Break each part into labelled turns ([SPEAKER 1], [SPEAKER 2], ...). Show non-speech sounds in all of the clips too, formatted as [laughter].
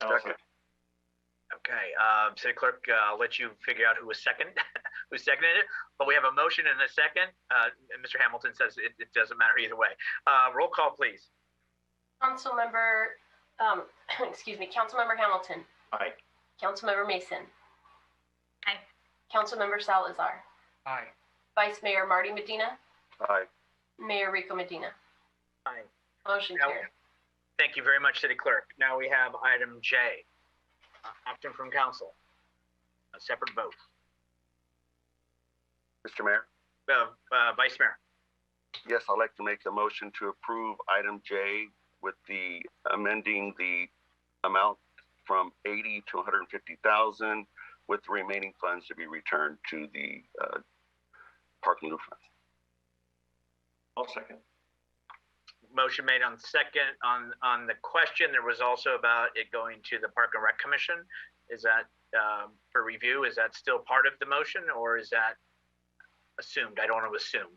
[SPEAKER 1] I'll second.
[SPEAKER 2] Okay, um, City Clerk, uh, I'll let you figure out who was second, [laughs] who seconded it, but we have a motion and a second. Uh, and Mr. Hamilton says it, it doesn't matter either way. Uh, roll call, please.
[SPEAKER 3] Councilmember, um, [clears throat] excuse me, Councilmember Hamilton.
[SPEAKER 1] Aye.
[SPEAKER 3] Councilmember Mason.
[SPEAKER 4] Aye.
[SPEAKER 3] Councilmember Salazar.
[SPEAKER 5] Aye.
[SPEAKER 3] Vice Mayor Marty Medina.
[SPEAKER 1] Aye.
[SPEAKER 3] Mayor Rico Medina.
[SPEAKER 2] Aye.
[SPEAKER 3] Motion
[SPEAKER 2] Now-
[SPEAKER 3] carried.
[SPEAKER 2] Thank you very much, City Clerk. Now we have item J, uh, action from council, a separate vote.
[SPEAKER 1] Mr. Mayor?
[SPEAKER 2] Uh, uh, Vice Mayor,
[SPEAKER 1] Yes, I'd like to make a motion to approve item J with the amending the amount from eighty to one hundred and fifty thousand with the remaining funds to be returned to the, uh, park and Roof fund. I'll second.
[SPEAKER 2] motion made on second, on, on the question, there was also about it going to the Park and Rec Commission. Is that, um, for review, is that still part of the motion or is that assumed? I don't want to assume.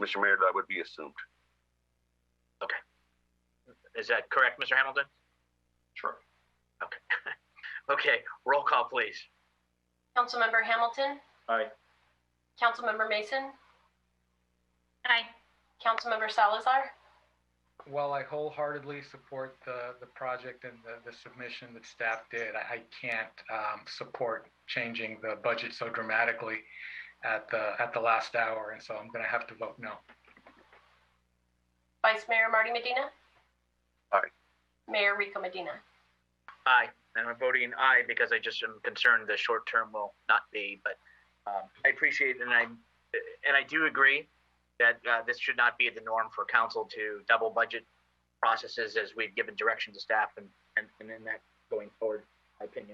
[SPEAKER 1] Mr. Mayor, that would be assumed.
[SPEAKER 2] Is that correct, Mr. Hamilton?
[SPEAKER 1] Sure.
[SPEAKER 2] Okay. Okay, roll call, please.
[SPEAKER 3] Councilmember Hamilton.
[SPEAKER 1] Aye.
[SPEAKER 3] Councilmember Mason.
[SPEAKER 4] Aye.
[SPEAKER 3] Councilmember Salazar.
[SPEAKER 5] While I wholeheartedly support the, the project and the, the submission that staff did, I, I can't um, support changing the budget so dramatically at the, at the last hour, and so I'm gonna have to vote no.
[SPEAKER 3] Vice Mayor Marty Medina.
[SPEAKER 1] Aye.
[SPEAKER 3] Mayor Rico Medina.
[SPEAKER 2] Aye, and I'm voting aye because I just am concerned the short term will not be, but um, I appreciate and I, and I do agree that uh, this should not be the norm for council to double budget processes as we've given direction to staff and, and and in that going forward, my opinion.